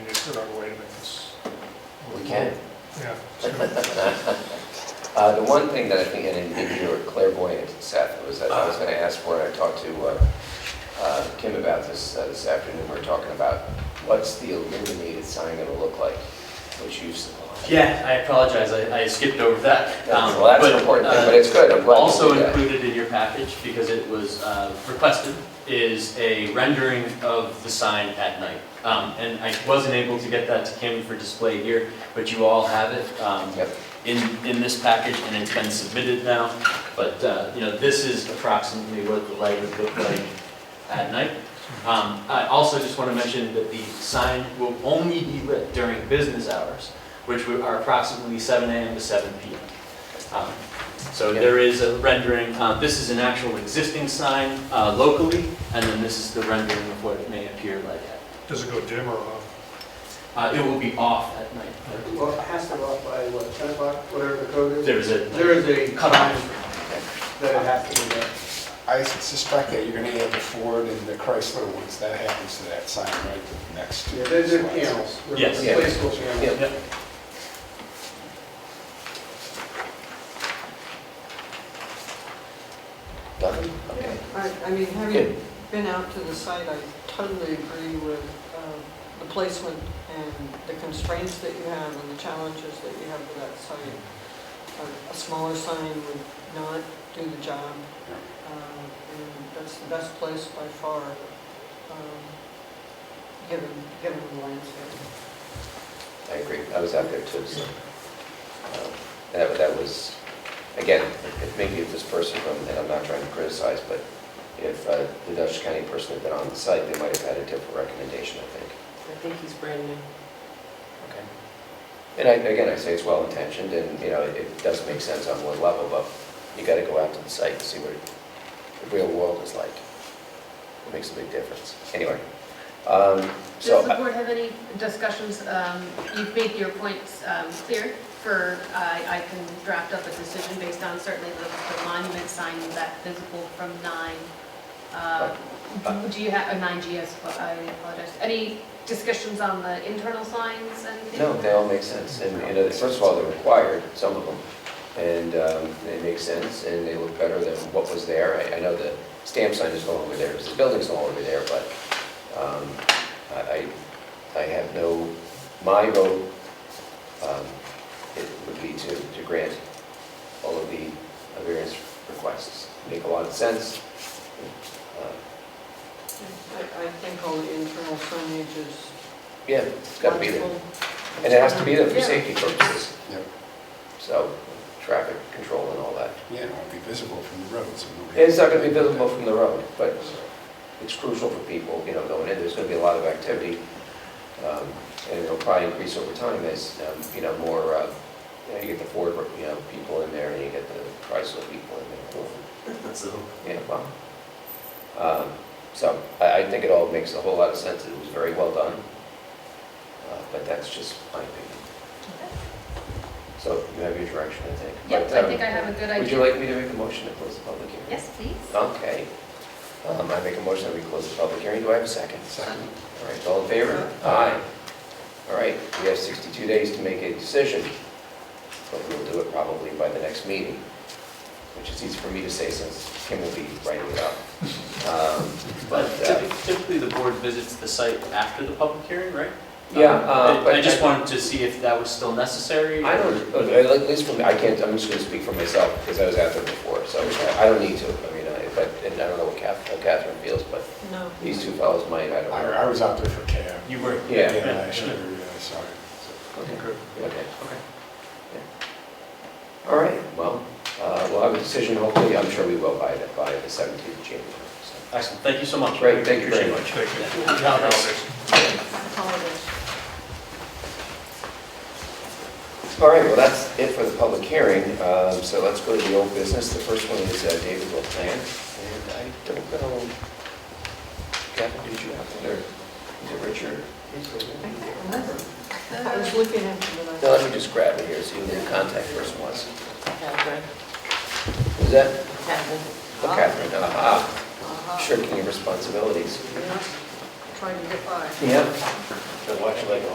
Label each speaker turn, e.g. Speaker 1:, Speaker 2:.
Speaker 1: said, oh, wait a minute, it's,
Speaker 2: We can.
Speaker 1: yeah. it's gonna-
Speaker 2: Uh, The one thing that I think I didn't give you a clairvoyant, Seth, was that I was going to ask for, and I talked to uh, uh, Kim about this uh, this afternoon, we were talking about what's the illuminated sign going to look like, which you supplied.
Speaker 3: Yeah, I apologize, I I skipped over that. Um,
Speaker 2: Well, that's an
Speaker 3: but,
Speaker 2: important thing,
Speaker 3: uh,
Speaker 2: but it's good, I'm glad you
Speaker 3: Also
Speaker 2: did that.
Speaker 3: included in your package, because it was uh, requested, is a rendering of the sign at night. Um, And I wasn't able to get that to Kim for display here, but you all have it um,
Speaker 2: Yep.
Speaker 3: in, in this package, and it's been submitted now. But, uh, you know, this is approximately what the light would look like at night. Um, I also just want to mention that the sign will only be lit during business hours, which we- are approximately 7 AM to 7 PM. Um, So
Speaker 2: Yeah.
Speaker 3: there is a rendering, uh, this is an actual existing sign uh, locally, and then this is the rendering of what it may appear like. at-
Speaker 1: Does it go dim or off?
Speaker 3: uh, It will be off at night.
Speaker 4: Well, it has to go up by what, 10 o'clock, whatever the code is?
Speaker 3: There is a
Speaker 4: There is a
Speaker 3: cutoff.
Speaker 4: cutoff that it has to be there.
Speaker 5: I suspect that you're going to have the Ford and the Chrysler ones, that happens to that sign right next to
Speaker 4: Yeah,
Speaker 5: it.
Speaker 4: They're they're panels, they're
Speaker 3: Yes.
Speaker 2: Yeah.
Speaker 4: replaceable panels.
Speaker 2: Yep.
Speaker 3: Yep.
Speaker 2: Nothing? Okay.
Speaker 6: I, I mean,
Speaker 2: Good.
Speaker 6: having been out to the site, I totally agree with um, the placement and the constraints that you have and the challenges that you have with that site. A- A smaller sign would not do the job. um, And that's the best place by far, um, given, given the landscape.
Speaker 2: I agree, I was out there too, so. um, That, that was, again, if maybe if this person from, and I'm not trying to criticize, but if uh, the Dutchess County person had been on the site, they might have had a different recommendation, I think.
Speaker 7: I think he's brand new.
Speaker 2: Okay. And I, again, I say it's well-intentioned, and, you know, it does make sense on one level, but you gotta go out to the site and see what the real world is like. It makes a big difference. Anyway, um, so.
Speaker 7: Does the board have any discussions, um, you've made your points um, clear for, uh, I I can draft up a decision based on certainly the the monument sign that visible from nine, uh, do you have, or nine GS, I apologize. Any discussions on the internal signs and?
Speaker 2: No, they all make sense, and, you know, first of all, they're required, some of them, and um, they make sense, and they look better than what was there. I, I know the stamp sign is no longer there, because the building's no longer there, but um, I, I I have no, my vote, um, it would be to, to grant all of the various requests. Make a lot of sense. Uh,
Speaker 6: I, I think all the internal signage is
Speaker 2: Yeah, it's gotta be there,
Speaker 6: logical.
Speaker 2: and it has to be there for
Speaker 6: Yeah.
Speaker 2: safety purposes,
Speaker 5: Yeah,
Speaker 2: so, traffic control and all that.
Speaker 5: yeah, it won't be visible from the road, so nobody-
Speaker 2: It's not going to be visible from the road, but it's crucial for people, you know, going in, there's going to be a lot of activity, um, and it'll probably increase over time as, um, you know, more, uh, you know, you get the Ford, you know, people in there, and you get the Chrysler people in
Speaker 3: That's the hope.
Speaker 2: there, yeah, well. Um, So I, I think it all makes a whole lot of sense, it was very well done, Uh, but that's just my opinion. So you have your direction, I think.
Speaker 7: Yep,
Speaker 2: But,
Speaker 7: I
Speaker 2: um,
Speaker 7: think I have a good
Speaker 2: Would you
Speaker 7: idea.
Speaker 2: like me to make a motion to close the public hearing?
Speaker 7: Yes, please.
Speaker 2: Okay. Um, I make a motion that we close the public hearing. Do I have a second?
Speaker 5: Second.
Speaker 2: All right, all in favor? Aye. All right, we have 62 days to make a decision, but we'll do it probably by the next meeting, which is easy for me to say since Kim will be writing it up. Um, But,
Speaker 3: But
Speaker 2: uh,
Speaker 3: typi- typically, the board visits the site after the public hearing, right?
Speaker 2: yeah,
Speaker 3: Um,
Speaker 2: uh,
Speaker 3: I-
Speaker 2: but...
Speaker 3: I just wanted to see if that was still necessary.
Speaker 2: I
Speaker 3: or-
Speaker 2: don't, at least for me, I can't, I'm just going to speak for myself because I was out there before, so I don't need to. I mean, I- but, and I don't know what Cath- how Catherine feels, but
Speaker 6: No.
Speaker 2: these two fellows might, I don't
Speaker 5: I
Speaker 2: know.
Speaker 5: I was out there for cab.
Speaker 3: You were,
Speaker 2: Yeah.
Speaker 5: Yeah, I should have realized, sorry.
Speaker 2: Okay.
Speaker 3: Okay.
Speaker 2: Okay.
Speaker 3: okay.
Speaker 2: All right, well, uh, we'll have a decision hopefully, I'm sure we will by the, by the 17th of January. so.
Speaker 3: Excellent, thank you so much.
Speaker 2: Great, thank you very
Speaker 3: Appreciate it.
Speaker 2: much.
Speaker 1: Take it.
Speaker 3: Yeah.
Speaker 1: Holidays.
Speaker 6: Holidays.
Speaker 2: All right, well, that's it for the public hearing, Um, so let's go to the old business. The first one is uh, David Will Plan, and I don't know, Kevin, did you have there? Is it Richard?
Speaker 6: I can't remember. I was looking at them and I.
Speaker 2: No, let me just grab it here, see who the contact person was.
Speaker 7: Catherine.
Speaker 2: Was that
Speaker 7: Catherine.
Speaker 2: oh, Catherine? Aha,
Speaker 6: Uh-huh.
Speaker 2: shirking your responsibilities.
Speaker 6: Yeah. Trying to get by.
Speaker 2: Yep. Watch like a